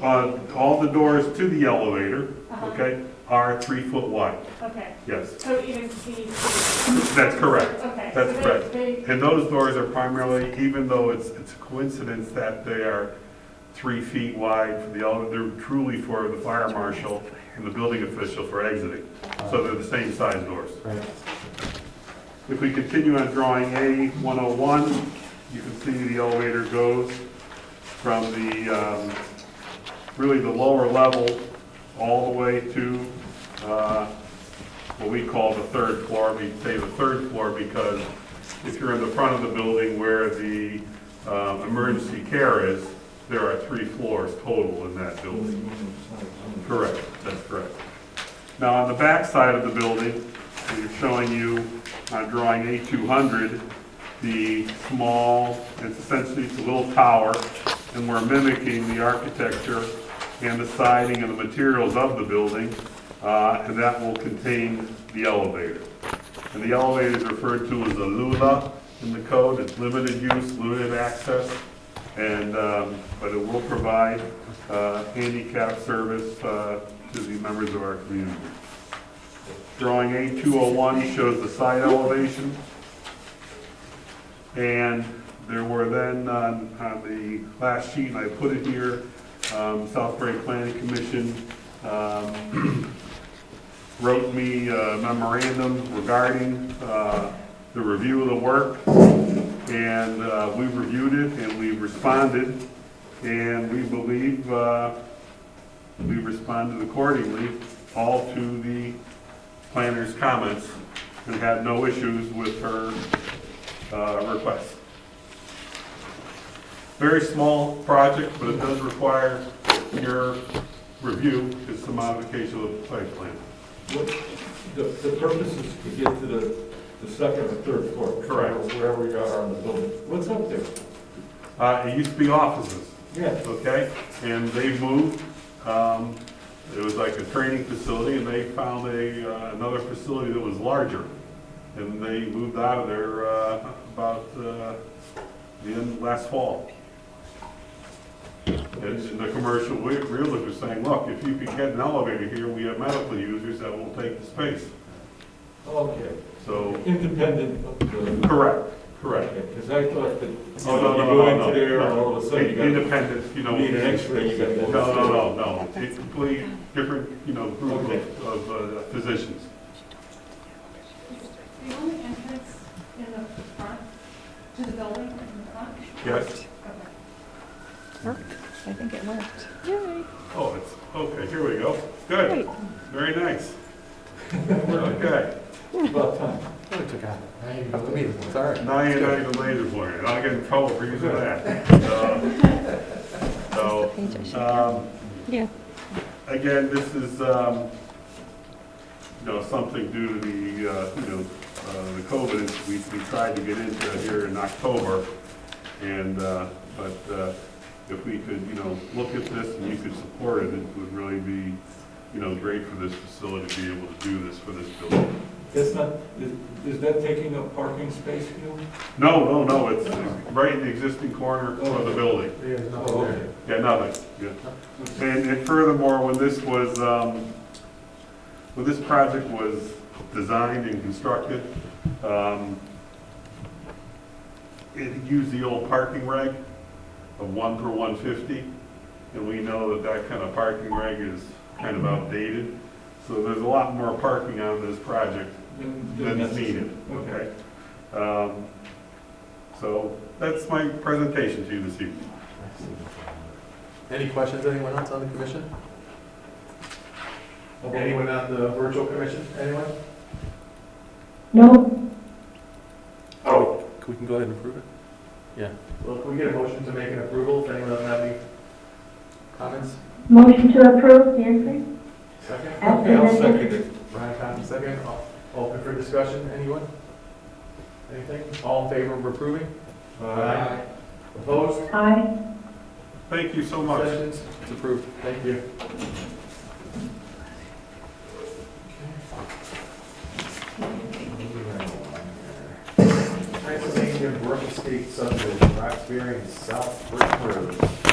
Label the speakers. Speaker 1: uh, all the doors to the elevator,
Speaker 2: Uh-huh.
Speaker 1: okay, are three foot wide,
Speaker 2: Okay,
Speaker 1: yes.
Speaker 2: so even see.
Speaker 1: That's correct.
Speaker 2: Okay.
Speaker 1: That's
Speaker 2: so they-
Speaker 1: correct.
Speaker 2: they-
Speaker 1: And those doors are primarily, even though it's, it's a coincidence that they are three feet wide for the elevator, they're truly for the fire marshal and the building official for exiting. So they're the same size doors.
Speaker 3: Right.
Speaker 1: If we continue on drawing A 101, you can see the elevator goes from the, um, really the lower level, all the way to uh, what we call the third floor. We say the third floor because if you're in the front of the building where the um, emergency care is, there are three floors total in that building. Correct, that's correct. Now, on the back side of the building, we're showing you on drawing A200, the small, it's essentially it's a little tower, and we're mimicking the architecture and the siding and the materials of the building, uh, and that will contain the elevator. And the elevator is referred to as a lula in the code, it's limited use, limited access, and, um, but it will provide uh, handicap service uh, to the members of our community. Drawing A201 shows the side elevation. And there were then, um, on on the last sheet, and I put it here, um, Southbury Planning Commission um, wrote me a memorandum regarding uh, the review of the work. And uh, we reviewed it and we responded. And we believe uh, we responded accordingly, all to the planner's comments, and had no issues with her uh, request. Very small project, but it does require your review, it's the modification of the site plan.
Speaker 3: What- The, the purpose is to get to the, the second or third floor.
Speaker 1: Correct.
Speaker 3: Wherever we are on the building. What's up there?
Speaker 1: Uh, It used to be offices.
Speaker 3: Yeah.
Speaker 1: okay? And they moved, um, it was like a training facility, and they found a, uh, another facility that was larger. And they moved out of there, uh, about, uh, the end, last fall. And and the commercial re- realtor was saying, look, if you could get an elevator here, we have medical users that will take the space.
Speaker 3: Okay.
Speaker 1: So,
Speaker 3: Independent of the.
Speaker 1: correct, correct.
Speaker 3: Because I thought that, you
Speaker 1: Oh, no,
Speaker 3: know, you
Speaker 1: no,
Speaker 3: go
Speaker 1: no, no,
Speaker 3: into there and
Speaker 1: no.
Speaker 3: all of a sudden you got.
Speaker 1: Independent, you know.
Speaker 3: You need an X-ray, you got.
Speaker 1: No, no, no, no, it's completely different, you know, group
Speaker 3: Okay.
Speaker 1: of, of uh, physicians.
Speaker 2: The only entrance in the front, to the building in the front?
Speaker 1: Yes?
Speaker 2: Okay.
Speaker 4: I think it worked.
Speaker 1: Oh, it's, okay, here we go. Good,
Speaker 4: Great.
Speaker 1: very nice. Okay,
Speaker 3: About time.
Speaker 5: Oh,
Speaker 1: now you're not even laser pointer, I'll get in trouble for using that. Uh, So,
Speaker 4: Page I should-
Speaker 1: um,
Speaker 4: Yeah.
Speaker 1: again, this is, um, you know, something due to the, uh, you know, uh, the COVID, we, we tried to get into it here in October. And, uh, but, uh, if we could, you know, look at this and you could support it, it would really be, you know, great for this facility to be able to do this for this building.
Speaker 3: That's not, is, is that taking up parking space, you?
Speaker 1: No, no, no, it's right in the existing corner of the building.
Speaker 3: Yeah, no.
Speaker 1: Yeah, nothing, yeah. And, and furthermore, when this was, um, when this project was designed and constructed, um, it used the old parking reg of one per one fifty, and we know that that kind of parking reg is kind of outdated. So there's a lot more parking on this project
Speaker 3: Then- then
Speaker 1: than is
Speaker 3: that's-
Speaker 1: needed, okay? Um, So that's my presentation to you this evening.
Speaker 5: Any questions, anyone else on the commission?
Speaker 3: Okay.
Speaker 5: Anyone on the virtual commission, anyone?
Speaker 2: No.
Speaker 5: Oh. We can go ahead and approve it? Yeah. Well, can we get a motion to make an approval, if anyone doesn't have any comments?
Speaker 6: Motion to approve, Nancy?
Speaker 5: Second?
Speaker 3: Okay, I'll second it.
Speaker 5: Ryan Cotton, second, All- open for discussion, anyone? Anything, all in favor of approving?
Speaker 3: Aye.
Speaker 5: Opposed?
Speaker 6: Aye.
Speaker 1: Thank you so much.
Speaker 5: Abstentions? It's approved, thank you. Transylvania Brook Estate subdivision, Roxbury and South Brook Road.